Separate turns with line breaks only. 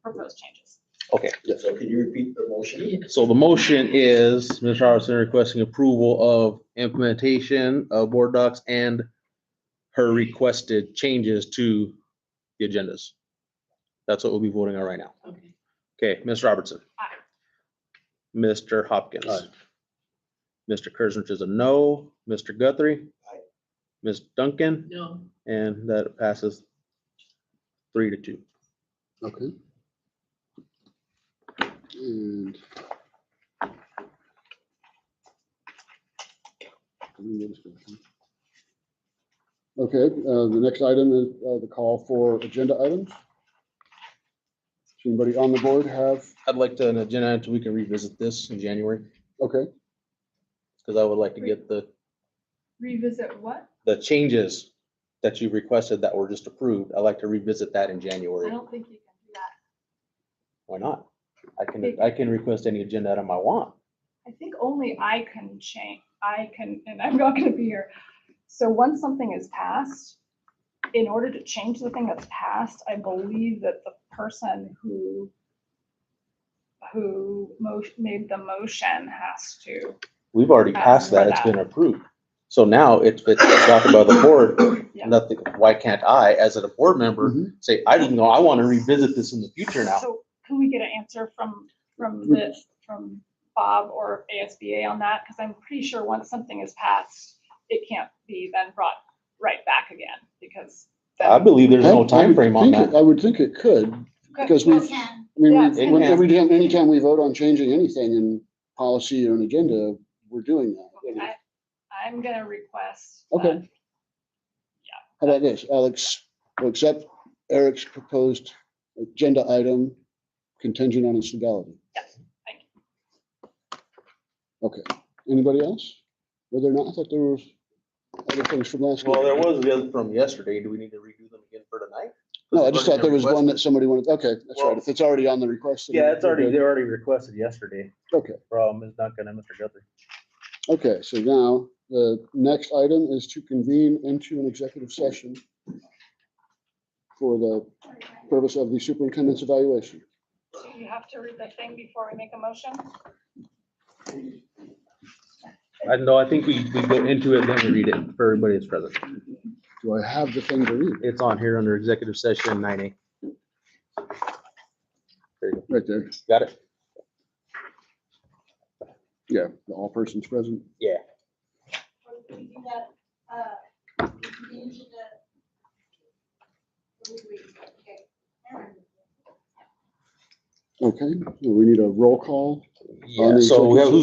proposed changes.
Okay,
So can you repeat the motion?
so the motion is Mr. Hardison requesting approval of implementation of board docs and her requested changes to the agendas. That's what we'll be voting on right now.
Okay.
Okay, Ms. Robertson.
Aye.
Mr. Hopkins.
Aye.
Mr. Kersnich is a no. Mr. Guthrie.
Aye.
Ms. Duncan,
No,
and that passes three to two.
Okay. And. Okay, uh, the next item is uh, the call for agenda items. Does anybody on the board have,
I'd like to, an agenda, item so we can revisit this in January,
okay,
because I would like to get the,
Revisit what?
the changes that you requested that were just approved. I'd like to revisit that in
I
January.
don't think you can do that.
Why not? I can, I can request any agenda item I want.
I think only I can change, I can, and I'm not gonna be here. So once something is passed, in order to change the thing that's passed, I believe that the person who who mo- made the motion has to,
We've already
Uh,
passed that.
for
It's
that.
been approved. So now it's, it's adopted by the board.
Yeah.
Nothing, why can't I, as a board member,
Mm-hmm.
say, I didn't know, I want to revisit this in the future now?
so can we get an answer from, from
Mm.
the, from Bob or ASBA on that? Because I'm pretty sure once something is passed, it can't be then brought right back again, because.
I
Uh,
then-
believe there's
Mm-hmm. I- I
no
would
time frame on
think it-
that.
I would think it could, because
you
we've,
can.
I mean,
Yeah,
we've-
it
when-
can.
every time, anytime we vote on changing anything in policy or an agenda, we're doing that.
I- I'm gonna request. uh,
Okay.
that-
How about this, Alex, we'll accept Eric's proposed agenda item contingent on its legality.
Yes, thank
Okay, anybody else? Were there not, I thought there were other things from last.
Well, there
week.
was the other from yesterday. Do we need to redo them again for tonight?
No, I just thought there was one that somebody wanted, okay, that's right, if it's already on the request. then
Yeah, it's
we're
already,
good.
they already requested yesterday
Okay,
from Ms. Duncan and Mr. Guthrie.
okay, so now the next item is to convene into an executive session for the purpose of the superintendent's evaluation.
So you have to read the thing before we make a motion?
I know, I think we, we go into it, then we read it for everybody that's present.
Do I have the thing to read?
It's on here under executive session nine A.
Right there,
Got it?
yeah, the all persons present.
Yeah.
Or we can do that, uh, we can change the- we- we- okay.
Okay, we need a roll call.
Yeah, so we have,